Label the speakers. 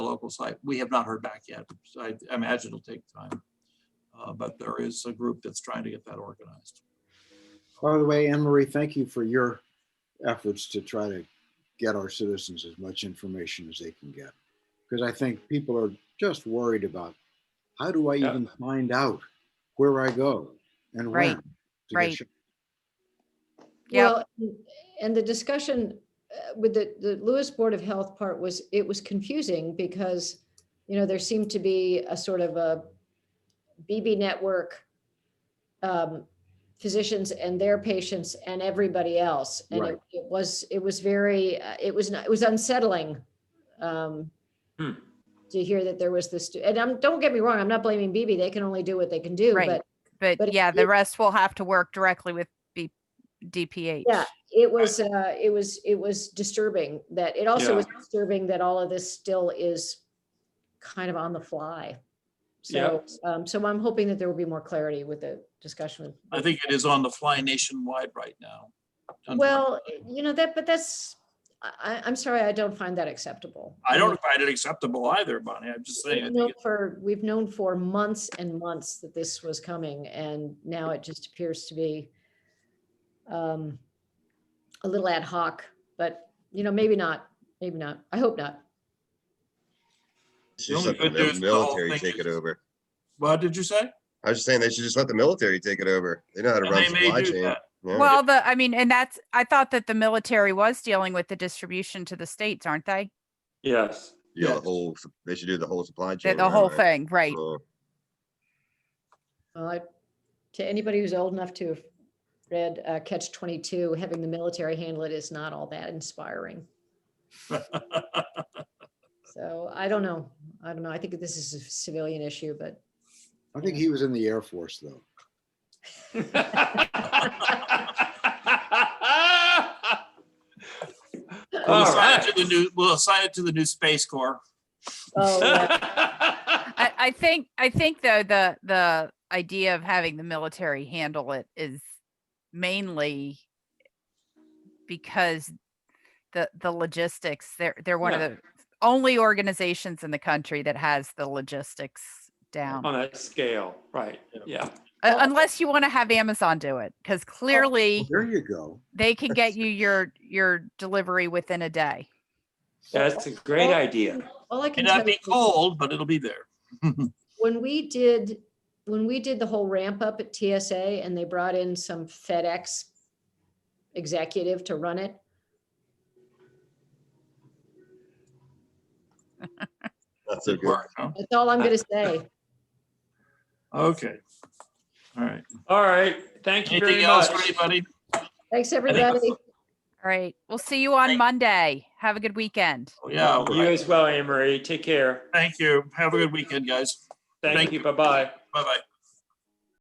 Speaker 1: local site. We have not heard back yet. So I I imagine it'll take time. Uh, But there is a group that's trying to get that organized.
Speaker 2: By the way, Anne Marie, thank you for your efforts to try to get our citizens as much information as they can get. Because I think people are just worried about, how do I
Speaker 1: Yeah.
Speaker 2: even find out where I go and
Speaker 3: Right,
Speaker 2: when? to get
Speaker 3: right.
Speaker 2: shot?
Speaker 3: Yep.
Speaker 4: Well, and- And the discussion uh, with the, the Lewis Board of Health part was, it was confusing because, you know, there seemed to be a sort of a BB network, um, physicians and their patients and everybody else. And
Speaker 2: Right.
Speaker 4: it it was, it was very, uh, it was, not- it was unsettling um,
Speaker 1: Hmm.
Speaker 4: to hear that there was this, and I'm, don't get me wrong, I'm not blaming BB. They can only do what they can do,
Speaker 3: Right.
Speaker 4: but but
Speaker 3: But
Speaker 4: it
Speaker 3: yeah, the
Speaker 4: is-
Speaker 3: rest will have to work directly with B- DPH.
Speaker 4: Yeah, it was, uh, it was, it was disturbing that, it also
Speaker 1: Yeah.
Speaker 4: was disturbing that all of this still is kind of on the fly. So, um, so I'm hoping that there will be more clarity with the discussion. with-
Speaker 1: I think it is on the fly nationwide right now.
Speaker 4: Well, you know, that, but that's, I, I- I'm sorry, I don't find that acceptable.
Speaker 1: I don't find it acceptable either, Bonnie. I'm just saying. I
Speaker 4: We've
Speaker 1: think
Speaker 4: known
Speaker 1: it-
Speaker 4: for, we've known for months and months that this was coming and now it just appears to be um, a little ad hoc, but you know, maybe not, maybe not. I hope not.
Speaker 1: The
Speaker 5: Should
Speaker 1: only
Speaker 5: just let
Speaker 1: good news
Speaker 5: the
Speaker 1: is the whole
Speaker 5: military
Speaker 1: thing
Speaker 5: take it
Speaker 1: is-
Speaker 5: over.
Speaker 1: What did you say?
Speaker 5: I was just saying they should just let the military take it over. They know how to
Speaker 1: And They
Speaker 5: run
Speaker 1: may
Speaker 5: supply
Speaker 1: do
Speaker 5: chain.
Speaker 1: that.
Speaker 5: Yeah.
Speaker 3: Well, the, I mean, and that's, I thought that the military was dealing with the distribution to the states, aren't they?
Speaker 6: Yes,
Speaker 5: Yeah,
Speaker 1: yeah.
Speaker 5: the whole, su- they should do the whole supply
Speaker 3: The,
Speaker 5: chain.
Speaker 3: the
Speaker 5: around
Speaker 3: whole
Speaker 5: it.
Speaker 3: thing, right?
Speaker 5: Yeah.
Speaker 4: Well, I- To anybody who's old enough to have read uh, Catch 22, having the military handle it is not all that inspiring. So I don't know. I don't know. I think this is a civilian issue, but
Speaker 2: I think he was in the Air Force, though.
Speaker 1: We'll
Speaker 6: All
Speaker 1: assign it
Speaker 6: right.
Speaker 1: to the new, we'll assign it to the new Space Corps.
Speaker 4: oh, yeah.
Speaker 3: I, I think, I think though, the, the idea of having the military handle it is mainly because the, the logistics, they're, they're one of
Speaker 6: Yeah.
Speaker 3: the only organizations in the country that has the logistics down.
Speaker 6: On that scale, right, yeah.
Speaker 3: Uh,
Speaker 4: Well-
Speaker 3: unless you want to have Amazon do it, because clearly
Speaker 2: Well, There you go.
Speaker 3: they can get you your your delivery within a day.
Speaker 6: That's a great idea.
Speaker 4: all I
Speaker 1: May
Speaker 4: can tell
Speaker 1: not
Speaker 4: you,
Speaker 1: be cold, but it'll be there.
Speaker 4: when we did, when we did the whole ramp up at TSA and they brought in some FedEx executive to run it,
Speaker 5: Not so good.
Speaker 1: Work, huh?
Speaker 4: that's all I'm going to say.
Speaker 1: Okay. All right.
Speaker 6: All right, thank you
Speaker 1: Anything
Speaker 6: very
Speaker 1: else
Speaker 6: much.
Speaker 1: for anybody?
Speaker 4: Thanks, everybody.
Speaker 3: All right. We'll see you on
Speaker 1: Thank-
Speaker 3: Monday. Have a good weekend.
Speaker 1: Oh, Yeah, all
Speaker 6: You
Speaker 1: right.
Speaker 6: as well, Anne Marie, take care.
Speaker 1: thank you. Have a good weekend, guys. Thank
Speaker 6: Thank
Speaker 1: you.
Speaker 6: you, bye-bye.
Speaker 1: Bye-bye.